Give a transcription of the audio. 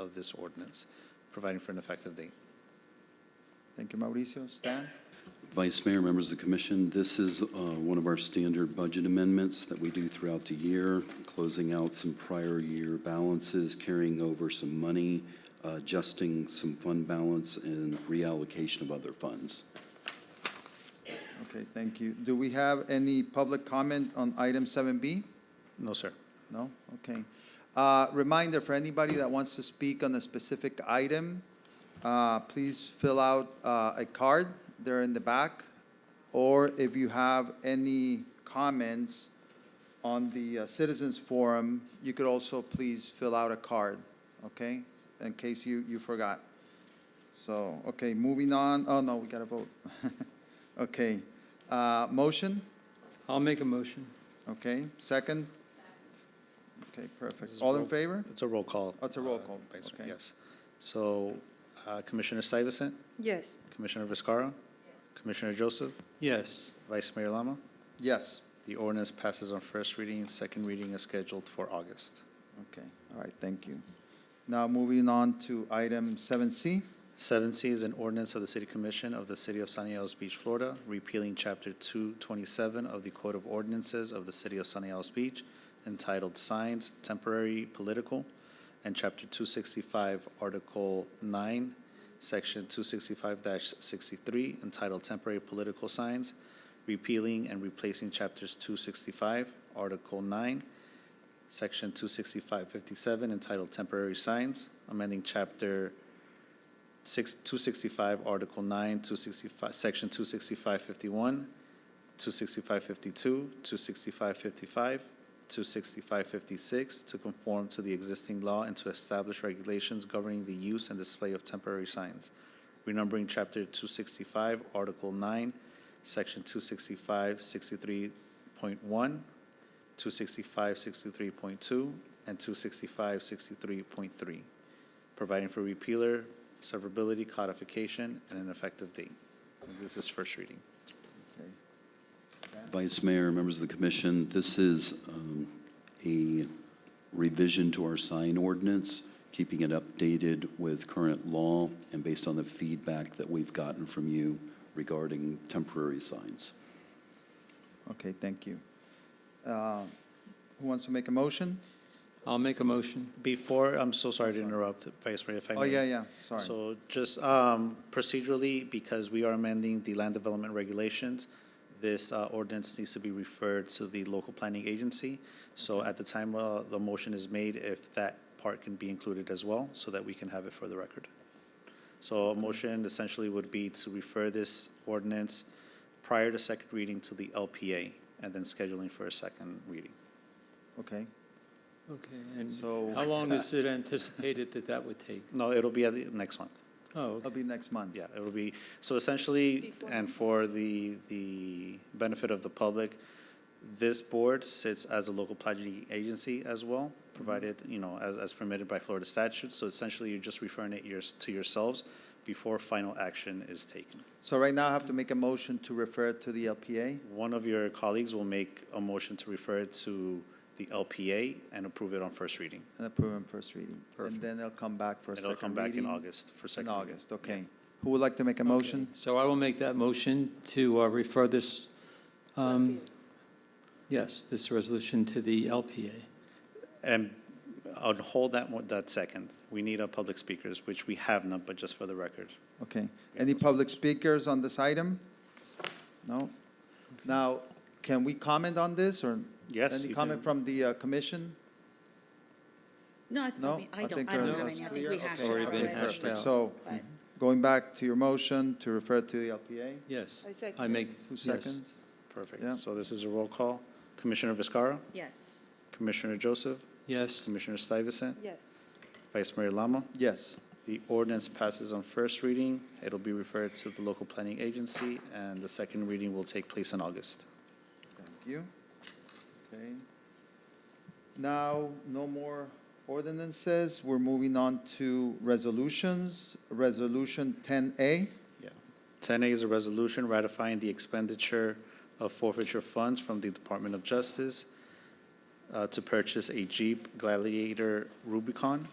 of this ordinance, providing for an effective date. Thank you, Mauricio. Stan? Vice Mayor, members of the commission, this is uh, one of our standard budget amendments that we do throughout the year, closing out some prior year balances, carrying over some money, uh, adjusting some fund balance, and reallocation of other funds. Okay, thank you. Do we have any public comment on item seven B? No, sir. No? Okay. Uh, Reminder for anybody that wants to speak on a specific item, uh, please fill out uh, a card. They're in the back. Or if you have any comments on the uh, citizens forum, you could also please fill out a card, okay? In case you, you forgot. So, okay, moving on. Oh, no, we got to vote. Okay. Uh, Motion? I'll make a motion. Okay, second? Okay, perfect. This is All in roll- favor? It's a roll call. Oh, it's a roll call. uh, Vice Mayor, Okay. Yes. So uh, Commissioner Syverson, Yes. Commissioner Viscara, Commissioner Joseph, Yes. Vice Mayor Lama. Yes, The ordinance passes on first reading, second reading is scheduled for August. okay, all right, thank you. Now moving on to item seven C. Seven C is an ordinance of the City Commission of the City of Sunny Isles Beach, Florida, repealing Chapter two twenty-seven of the Code of Ordinances of the City of Sunny Isles Beach entitled Signs Temporary Political, and Chapter two sixty-five, Article nine, Section two sixty-five sixty-three entitled Temporary Political Signs, repealing and replacing Chapters two sixty-five, Article nine, Section two sixty-five fifty-seven entitled Temporary Signs, amending Chapter six, two sixty-five, Article nine, two sixty-five, Section two sixty-five fifty-one, two sixty-five fifty-two, two sixty-five fifty-five, two sixty-five fifty-six, to conform to the existing law and to establish regulations governing the use and display of temporary signs. Renumbering Chapter two sixty-five, Article nine, Section two sixty-five sixty-three point one, two sixty-five sixty-three point two, and two sixty-five sixty-three point three providing for repealer, severability, codification, and an effective date. This is first reading. Okay. Vice Mayor, members of the commission, this is um, a revision to our sign ordinance, keeping it updated with current law and based on the feedback that we've gotten from you regarding temporary signs. Okay, thank you. Uh, Who wants to make a motion? I'll make a motion. Before, I'm so sorry to interrupt, Vice Mayor, if I may. Oh, yeah, yeah, sorry. So just um, procedurally, because we are amending the land development regulations, this uh, ordinance needs to be referred to the local planning agency. So at the time uh, the motion is made, if that part can be included as well, so that we can have it for the record. So a motion essentially would be to refer this ordinance prior to second reading to the LPA and then scheduling for a second reading. Okay, Okay, and So- how long is it anticipated that that would take? No, it'll be at the next month. Oh, it'll be next month. Yeah, it will be, so essentially, Before. and for the, the benefit of the public, this board sits as a local planning agency as well, provided, you know, as, as permitted by Florida statute. So essentially, you're just referring it yours, to yourselves before final action is taken. So right now I have to make a motion to refer to the LPA? One of your colleagues will make a motion to refer it to the LPA and approve it on first reading. And approve on first reading. And Perfect. then it'll come back for a And second it'll reading. come back in August for In second. reading. August, okay. Who would like to make a motion? so I will make that motion to uh, refer this, um, yes, this resolution to the LPA. And I'll hold that one, that second. We need our public speakers, which we have not, but just for the record. Okay. Any public speakers on this item? No? Now, can we comment on this or? Yes, Any you comment can. from the uh, commission? No, I think, No? we- I don't, think I don't we're- have that's any. I think clear. we hashed Okay. it out Already been already. hashed out. So But- going back to your motion to refer to the LPA, Yes. I second I it. make, two yes. seconds? Yeah. Perfect. So this is a roll call. Commissioner Viscara, Yes. Commissioner Joseph, Yes, Commissioner Stuyvesant, Yes. Vice Mayor Lama. Yes. The ordinance passes on first reading. It'll be referred to the local planning agency, and the second reading will take place in August. Thank you. Okay. Now, no more ordinances. We're moving on to resolutions. Resolution 10A. Yeah. Ten A is a resolution ratifying the expenditure of forfeiture funds from the Department of Justice uh, to purchase a Jeep Gladiator Rubicon.